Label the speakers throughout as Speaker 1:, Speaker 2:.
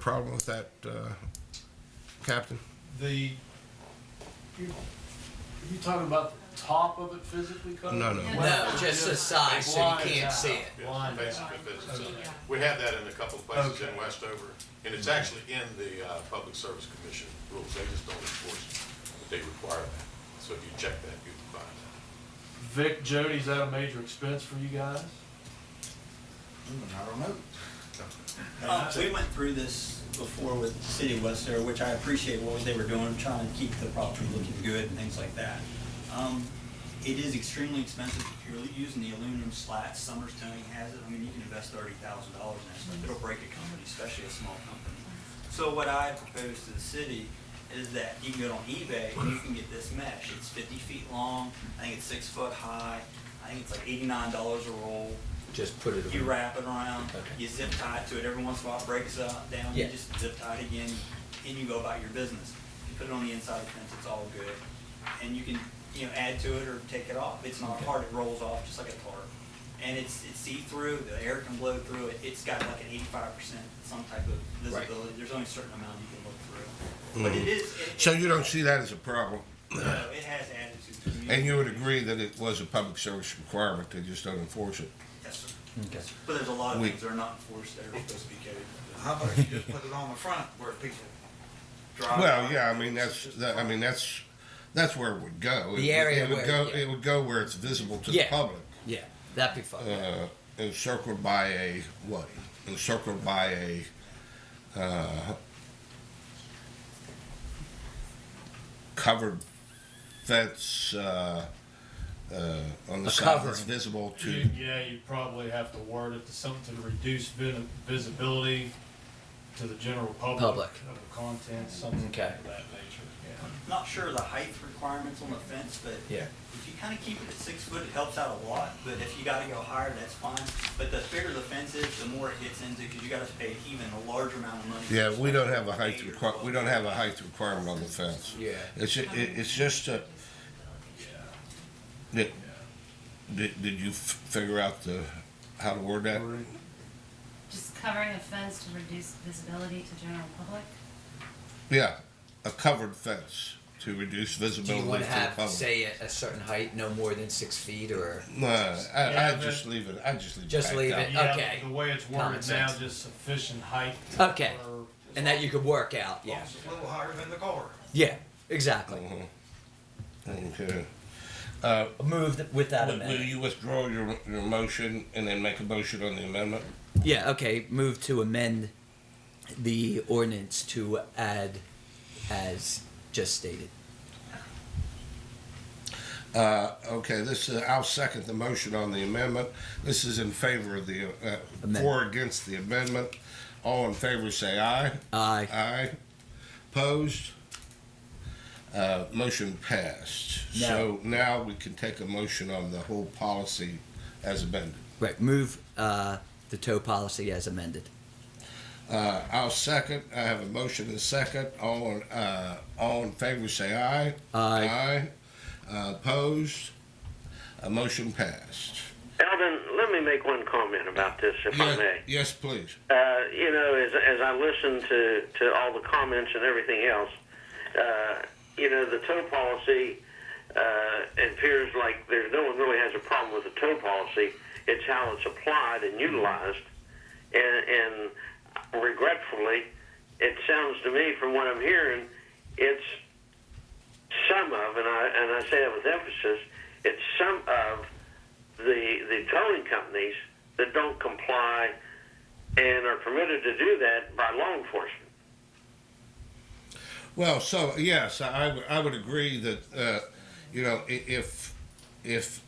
Speaker 1: problem with that, uh, Captain?
Speaker 2: The, you, you talking about the top of it physically covered?
Speaker 1: No, no.
Speaker 3: No, just the side, so you can't see it.
Speaker 2: Blind
Speaker 4: Yes,
Speaker 2: out.
Speaker 4: basically business center. We have that in a couple of places in Westover, and it's actually in the uh, Public Service Commission rules. They just don't enforce it, but they require that. So if you check that, you can find that.
Speaker 2: Vic, Jody, is that a major expense for you guys?
Speaker 5: I don't know.
Speaker 6: Uh, We went through this before with the City of West Sarah, which I appreciate what they were doing, trying to keep the property looking good and things like that. Um, It is extremely expensive if you're using the aluminum slats, Summers Towing has it, I mean, you can invest thirty thousand dollars in that stuff, it'll break a company, especially a small company. So what I propose to the city is that you can go on eBay and you can get this mesh, it's fifty feet long, I think it's six foot high, I think it's like eighty-nine dollars a roll,
Speaker 3: Just put it
Speaker 6: you
Speaker 3: away.
Speaker 6: wrap it around,
Speaker 3: Okay.
Speaker 6: you zip tie it to it, every once in a while it breaks up, down, you
Speaker 3: Yeah.
Speaker 6: just zip tie it again, and you go about your business. You put it on the inside of the fence, it's all good, and you can, you know, add to it or take it off, it's not
Speaker 3: Okay.
Speaker 6: hard, it rolls off just like a tarp. And it's, it's see-through, the air can blow through it, it's got like an eighty-five percent some type of
Speaker 3: Right.
Speaker 6: visibility, there's only a certain amount you can look through. But it is, it.
Speaker 1: Mm-hmm. So
Speaker 6: it-
Speaker 1: you don't see that as a problem,
Speaker 6: no, It has attitude to the community.
Speaker 1: and you would agree that it was a public service requirement, they just don't enforce it.
Speaker 6: Yes, sir. Yes, sir. But there's a lot of
Speaker 1: We-
Speaker 6: things that are not enforced that are supposed to be carried.
Speaker 5: How about you just put it on the front where people drive?
Speaker 1: Well,
Speaker 5: by?
Speaker 1: yeah, I mean, that's,
Speaker 5: Just
Speaker 1: that, I mean, that's, that's where it would go. It
Speaker 3: The
Speaker 1: would-
Speaker 3: area
Speaker 1: It would
Speaker 3: where-
Speaker 1: go,
Speaker 3: yeah.
Speaker 1: it would go where it's visible to the
Speaker 3: Yeah.
Speaker 1: public.
Speaker 3: Yeah, that'd be fun.
Speaker 1: uh, encircled by a what? Encircled by a uh, covered fence uh, uh, on
Speaker 3: A Mm-hmm.
Speaker 1: the side that's
Speaker 3: covering.
Speaker 1: visible to.
Speaker 2: You- Yeah, you probably have to word it to something to reduce vi- visibility to the general public.
Speaker 3: Public.
Speaker 2: Of the content, something of
Speaker 3: Okay.
Speaker 2: that nature,
Speaker 6: Not sure of the height requirements on the fence, but
Speaker 3: Yeah.
Speaker 6: if you kind of keep it at six foot, it helps out a lot, but if you gotta go higher, that's fine. But the bigger the fence is, the more it gets into, because you gotta pay even a larger amount of money.
Speaker 1: Yeah, we don't have a height
Speaker 6: Eight or
Speaker 1: require. We don't have a
Speaker 6: 12.
Speaker 1: height requirement on the fence.
Speaker 3: Yeah.
Speaker 1: It's ju- it, it's just a. Did, did, did you f- figure out the how to word that?
Speaker 4: Just covering a fence to reduce visibility to general public?
Speaker 1: Yeah, a covered fence to reduce
Speaker 3: Do
Speaker 1: visibility
Speaker 3: you want to
Speaker 1: to the
Speaker 3: have,
Speaker 1: public.
Speaker 3: say, a, a certain height, no more than six feet, or
Speaker 1: No, I,
Speaker 2: Yeah,
Speaker 1: I
Speaker 2: but-
Speaker 1: just leave it. I just leave
Speaker 3: Just
Speaker 1: it.
Speaker 3: leave
Speaker 2: yeah.
Speaker 3: it.
Speaker 1: it.
Speaker 2: Yeah,
Speaker 3: Okay.
Speaker 2: The way it's
Speaker 3: Common
Speaker 2: worded now,
Speaker 3: sense.
Speaker 2: just sufficient height.
Speaker 3: Okay.
Speaker 2: for-
Speaker 3: and that you could work out? Yeah,
Speaker 5: It's a little higher than the car.
Speaker 3: yeah, exactly.
Speaker 1: Okay.
Speaker 3: Move th- with that
Speaker 1: Will, will
Speaker 3: amendment.
Speaker 1: you withdraw your, your motion and then make a motion on the amendment?
Speaker 3: Yeah, okay. Move to amend the ordinance to add as just stated.
Speaker 1: Uh, okay, this, uh, I'll second the motion on the amendment. This is in favor of the, uh,
Speaker 3: Amendment.
Speaker 1: for or against the amendment. All in favor, say aye.
Speaker 3: Aye.
Speaker 1: Aye. Opposed? Uh, motion passed.
Speaker 3: No.
Speaker 1: So now we can take a motion on the whole policy as amended.
Speaker 3: Right. Move uh, the tow policy as amended.
Speaker 1: Uh, I'll second. I have a motion and a second. All, in- uh, all in favor, say aye.
Speaker 3: Aye.
Speaker 1: Aye. Uh, opposed? A motion passed.
Speaker 7: Alvin, let me make one comment about this, if I
Speaker 1: Yes-
Speaker 7: may.
Speaker 1: Yes, please.
Speaker 7: Uh, you know, as, as I listen to, to all the comments and everything else, uh, you know, the tow policy uh, it appears like there's no one really has a problem with the tow policy. It's how it's applied and utilized, and, and regretfully, it sounds to me from what I'm hearing, it's some of, and I and I say that with emphasis, it's some of the the towing companies that don't comply and are permitted to do that by law enforcement.
Speaker 1: Well, so yes, I, I would- I would agree that uh, you know i- if if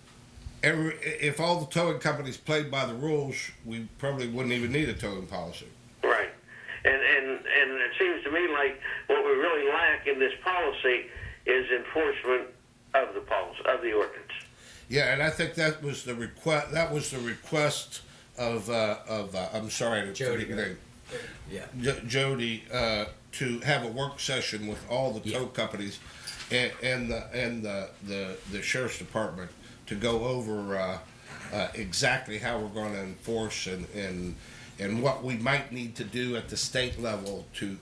Speaker 1: every if all the towing companies played by the rules, we probably wouldn't even need a towing policy.
Speaker 7: Right. And and and it seems to me like what we really lack in this policy is enforcement of the policy of the ordinance.
Speaker 1: Yeah, and I think that was the request. That was the request of uh, of uh, I'm sorry, I didn't
Speaker 3: Jody.
Speaker 1: forget your name.
Speaker 3: Yeah.
Speaker 1: J- Jody uh, to have a work session with all the tow
Speaker 3: Yeah.
Speaker 1: companies and, and the and the, the the sheriff's department to go over uh, uh, exactly how we're going to enforce and and and what we might need to do at the state level to